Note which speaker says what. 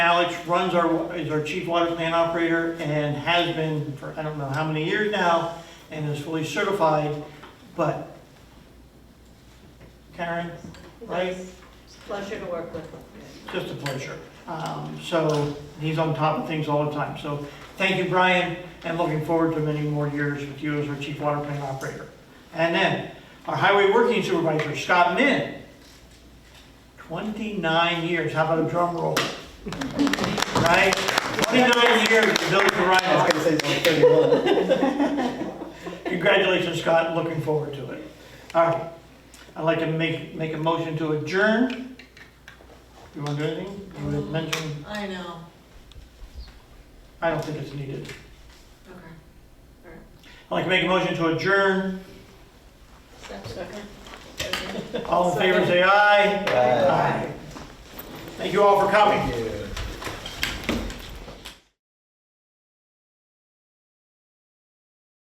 Speaker 1: Alex runs our, is our chief water plant operator and has been for I don't know how many years now and is fully certified, but Karen, Right.
Speaker 2: It's a pleasure to work with.
Speaker 1: just a pleasure. Um, So he's on top of things all the time. So thank you, Brian, and looking forward to many more years with you as our chief water plant operator. And then our highway working supervisor, Scott Min. 29 years, how about a drum roll? Right? 29 years with Village of
Speaker 3: I was
Speaker 1: Rhinebeck.
Speaker 3: gonna say it's like thirty-one.
Speaker 1: Congratulations, Scott, looking forward to it. All right, I'd like to make, make a motion to adjourn. You want to do anything? You want to mention?
Speaker 2: I know.
Speaker 1: I don't think it's needed.
Speaker 2: Okay.
Speaker 1: I'd like to make a motion to adjourn.
Speaker 2: Second.
Speaker 1: All in favor, say aye.
Speaker 3: Aye.
Speaker 1: Thank you all for coming.
Speaker 3: Thank you.